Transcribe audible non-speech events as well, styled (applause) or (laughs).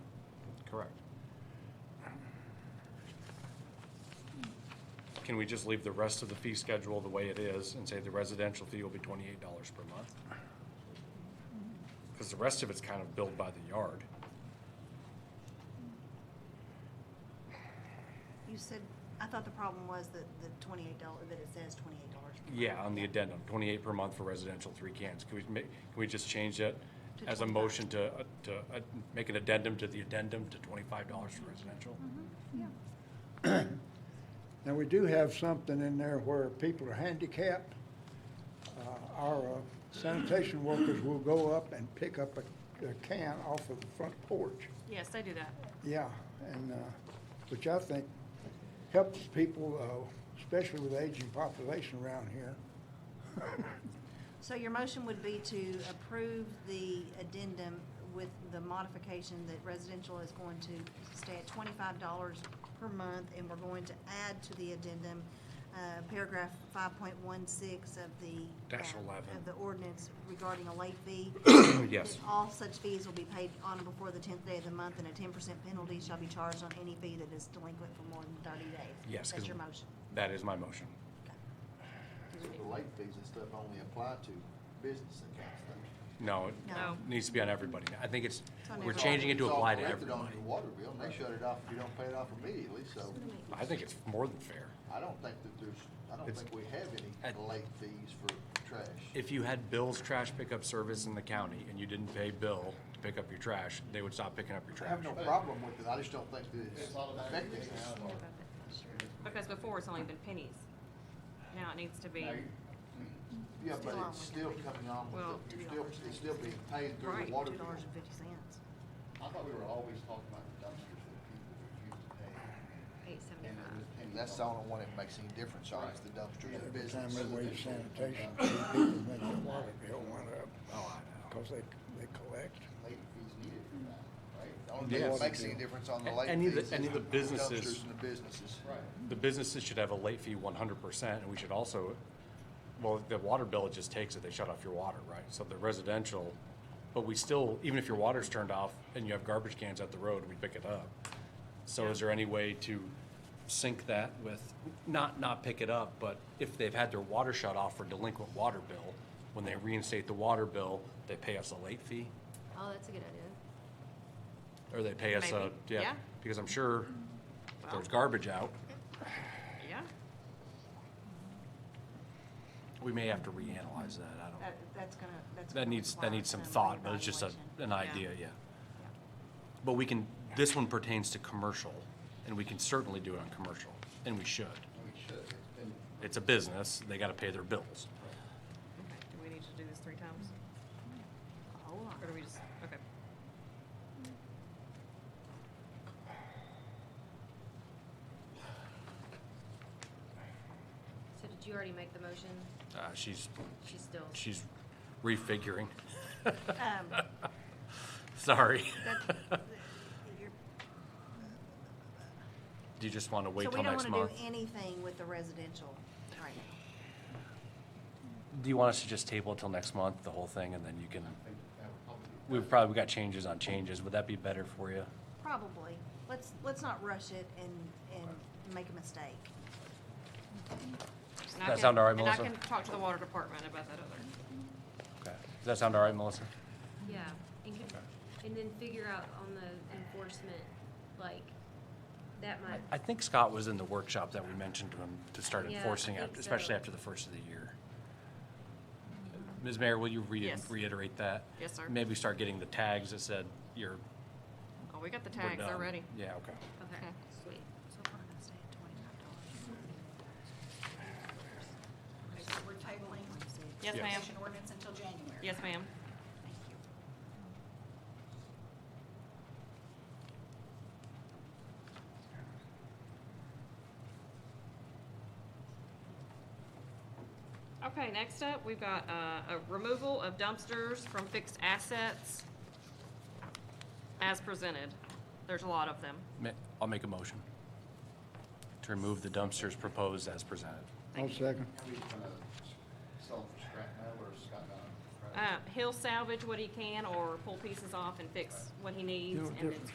can we just leave the rest of the fee schedule the way it is and say the residential fee will be twenty-eight dollars per month? Because the rest of it's kind of billed by the yard. You said, I thought the problem was that the twenty-eight dollar, that it says twenty-eight dollars. Yeah, on the addendum, twenty-eight per month for residential, three cans. Can we make, can we just change that To as a 25. motion to, uh, to, uh, make an addendum to the addendum to twenty-five dollars for residential? Mm-hmm. Now, we do have something in there where people are handicapped. Uh, Our uh, sanitation workers will go up and pick up a a can off of the front porch. Yes, they do that. Yeah, and, uh, which I think helps people, uh, especially with the aging population around here. So your motion would be to approve the addendum with the modification that residential is going to stay at twenty-five dollars per month, and we're going to add to the addendum, uh, paragraph five point one six of the. Dash uh, 11. Of the ordinance regarding a late fee. (coughs) Yes. That All such fees will be paid on or before the tenth day of the month, and a ten percent penalty shall be charged on any fee that is delinquent for more than thirty days. Yes. 'cause That's your motion. That is my motion. Okay. So the late fees and stuff only apply to business accounts, though. No, it No. needs to be on everybody. I think it's, on we're everybody. changing it to It's all apply to corrected everybody. On your water bill, and they shut it off if you don't pay it off immediately, so I think it's more than fair. I don't think that there's, I don't It's- think we have I- any late fees for trash. If you had Bill's trash pickup service in the county and you didn't pay Bill to pick up your trash, they would stop picking up your I trash. have no problem with it, I just don't think that it's affecting us. Because before it's only been pennies. Now it needs to be, Yeah, but Still on it's with still coming on Well, with the, you're still, $2.50. it's still being paid through Right, the water Two bill. dollars and fifty cents. I thought we were always talking about the dumpsters that people refuse to pay. And eight it seventy-five. was- And that's the only one that makes any difference, y'all, is the dumpsters and Every time business. they waive sanitation, people make their water bill went up. Oh, I know. Because they, they collect. Late fees needed for that, right? The only thing Yes. that makes any difference on the A- late any of the- fees is the any of the businesses- dumpsters and the businesses. Right. The businesses should have a late fee one hundred percent, and we should also, well, the water bill just takes it, they shut off your water, right? So the residential, but we still, even if your water's turned off and you have garbage cans at the road, we pick it up. So is there any way to sync that with, not, not pick it up, but if they've had their water shut off for delinquent water bill, when they reinstate the water bill, they pay us a late fee? Oh, that's a good idea. Or they pay us a, Maybe, yeah, yeah. because I'm sure if there's garbage out, Yeah, we may have to reanalyze that, I don't. That, that's gonna, that's. That gonna needs, require that needs some some thought, but it's just a, reevaluation. an idea, yeah. But we can, this one pertains to commercial, and we can certainly do it on commercial, and we should. We should, it's been, It's a business, they gotta pay their bills. okay, do we need to do this three times? A whole lot. Or do we just, okay. So did you already make the motion? Uh, she's, She's still, she's refiguring, (laughs) Um, sorry. that- you're- Do you just wanna (laughs) So wait we till don't next wanna do month? anything with the residential right now. Do you want us to just table it till next month, the whole thing, and then you can, I think that would probably be. we've probably got changes on changes, would that be better for you? Probably. Let's, let's not rush it and, and make a mistake. Does that sound all right, Melissa? And I can talk to the water department about that other. Okay, does that sound all right, Melissa? yeah, and could, and then figure out on the enforcement, like, that might, I think Scott was in the workshop that we mentioned to him to start Yeah, I enforcing, think after- especially so. after the first of the year. Ms. Mayor, will you re- Yes. reiterate that? Yes, sir. Maybe start getting the tags that said you're, Oh, we got the we're tags, done. they're ready. Yeah, okay. okay, Okay. sweet. So we're gonna stay at twenty-five Okay, so we're tabling dollars. Yes, Yes. ma'am. action ordinance until January. Yes, ma'am. Thank you. Okay, next up, we've got uh, a removal of dumpsters from fixed assets as presented. There's a lot of them. Ma- I'll make a motion to remove the dumpsters proposed as presented. One second. Are we gonna sell for scrap metal or scrap metal? Uh, He'll salvage what he can or pull pieces off and fix what he needs You know, and then different